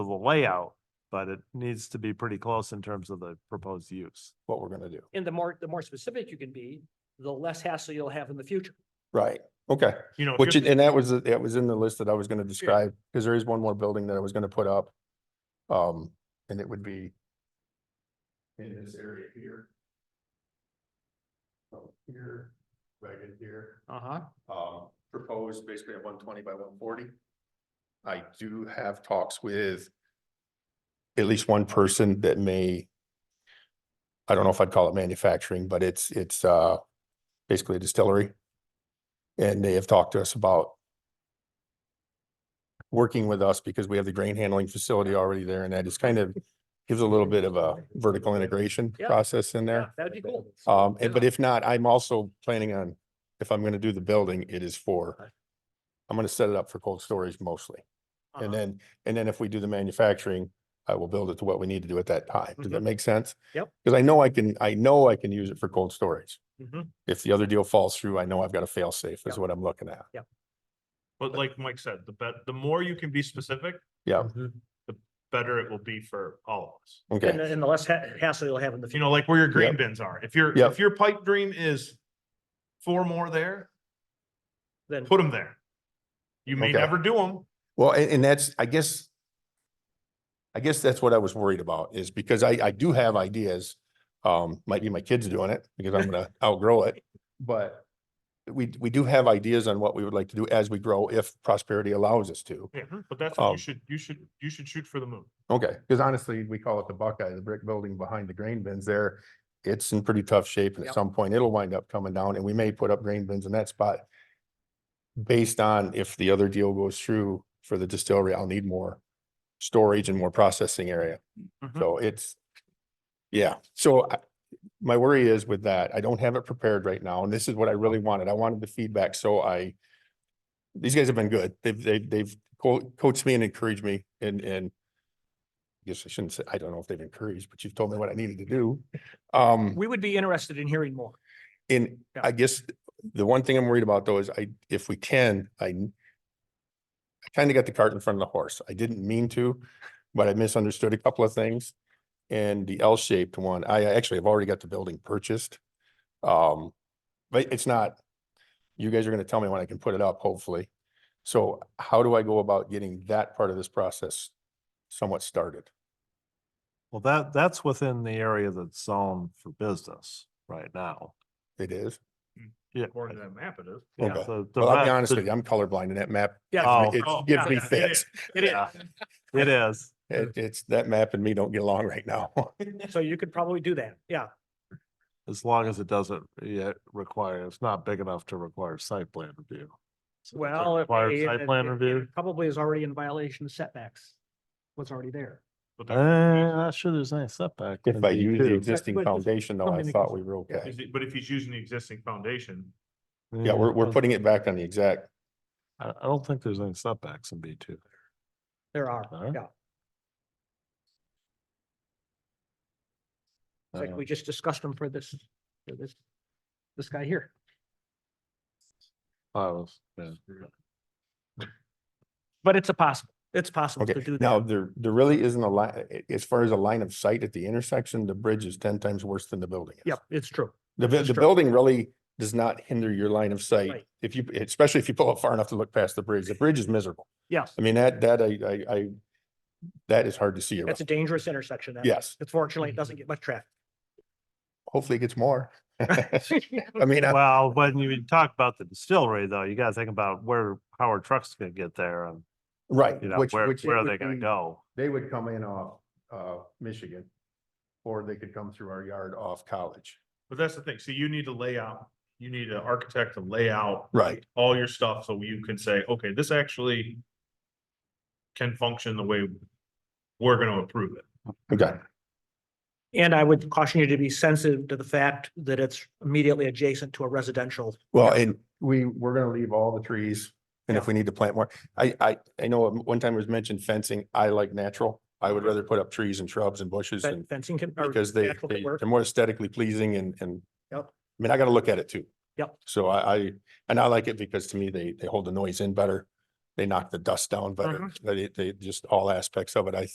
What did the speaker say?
of the layout, but it needs to be pretty close in terms of the proposed use. what we're gonna do. And the more, the more specific you can be, the less hassle you'll have in the future. Right, okay. You know, Which, it- and that was, that was in the list that I was gonna describe, because there is one more building that I was gonna put up. Um, and it would be in this area here. So Here, right in here, Uh-huh. um, proposed basically at one twenty by one forty. I do have talks with at least one person that may, I don't know if I'd call it manufacturing, but it's, it's, uh, basically a distillery. And they have talked to us about working with us because we have the grain handling facility already there and that is kind of gives a little bit of a vertical integration Yeah. process in there. That'd be cool. Um, and- but Yeah. if not, I'm also planning on, if I'm gonna do the building, it is Okay. for, I'm gonna set it up for cold storage mostly. Uh-huh. And then, and then if we do the manufacturing, I will build it to what we need to do at that time. Does that Mhm. make sense? Yep. Cause I know I can, I know I can use it for cold storage. Mhm. If the other deal falls through, I know I've got a fail safe Yep. is what I'm looking at. But like Mike said, the bet, the more you can be specific, Yeah, better it will be for all of us. And, okay, the- and the less ha- hassle you'll have in the You future. know, like where your green Yep. bins are. If your, Yep. if your pipe dream is four more there, Then, put them there. You may Okay. never do them. well, and, and that's, I guess. I guess that's what I was worried about is because I, I do have ideas. Um, might be my kids doing it because I'm gonna outgrow it, but. We, we do have ideas on what we would like to do as we grow if prosperity allows us to. Yeah, Mm-hmm. but that's what Um, you should, you should, you should shoot for the moon. Okay, because honestly, we call it the Buckeye, the brick building behind the grain bins there. It's in pretty tough shape and at Yep. some point it'll wind up coming down and we may put up grain bins in that spot. Based on if the other deal goes through for the distillery, I'll need more storage and more processing area. Mhm. So it's, yeah, so I- my worry is with that, I don't have it prepared right now and this is what I really wanted. I wanted the feedback, so I these guys have been good. They've, they've, they've co- coached me and encouraged me and, and I guess I shouldn't say, I don't know if they've encouraged, but you've told me what I needed to do. Um, we would be interested in hearing more. and Yeah. I guess the one thing I'm worried about though is I, if we can, I I kind of got the cart in front of the horse. I didn't mean to, but I misunderstood a couple of things. And the L-shaped one, I actually have already got the building purchased. Um, but it's not, you guys are gonna tell me when I can put it up, hopefully. So how do I go about getting that part of this process somewhat started? Well, that, that's within the area that's zoned for business right now. It is. Yeah. According to that map, it is. Yeah, Okay. the- the Well, I'll map- be honest the- with you, I'm colorblind and that map, Yeah, Oh. it Oh, gives me yeah, yeah, yeah. fits. it is. yeah, It is. It, it's that map and me don't get along right now. So you could probably do that. Yeah. As long as it doesn't yet require, it's not big enough to require site plan review. So if it Well. it requires may- Site it- plan it- it review. Probably is already in violation of setbacks. What's already there. But Eh, that- not sure there's any setback. If in I use D2. the existing but just foundation though, come I in and thought cons- we were okay. is it- But if he's using the existing foundation, Yeah, we're, we're I- putting it back on the exact, I, I don't think there's any setbacks in B two. There are, Huh? yeah. It's Like Uh, we just discussed them for this, for this, this guy here. But it's a possible, it's possible to okay. do Now, that. there, there really isn't a line, as far as a line of sight at the intersection, the bridge is ten times worse than the building. is. Yep, it's true. The, bu- that's the true. building really does not hinder your line of sight. Right. If you, especially if you pull up far enough to look past the bridge, the bridge is miserable. Yes, I mean, that, that I, I, I, that is hard to see. that's around. a dangerous intersection. that- Yes, Unfortunately, it Mm-hmm. doesn't get much traffic. hopefully it gets more. I mean, I- Well, when you talk about the distillery though, you gotta think about where, how are trucks gonna get there and, right. you know, which- where, which it where are would they gonna be- go? they would come in off, uh, Michigan. Or they could come through our yard off college. but that's the thing. So you need to lay out, you need an architect to lay out Right. all your stuff so you can say, okay, this actually can function the way we're gonna approve it. Okay, And I would caution you to be sensitive to the fact that it's immediately adjacent to a residential. well, and we, we're gonna leave all the trees, and if we need to plant more, I, I, I know one time it was mentioned fencing, I like natural. I would rather put up trees and shrubs and bushes fen- and, Fencing can. or because they, natural can they- work. they're more aesthetically pleasing and, and. Yep. I mean, I gotta look at it too. Yep. So I, I, and I like it because to me, Uh-huh. they, they hold the noise in better, they knock the dust down better, they, they, just all aspects of it, I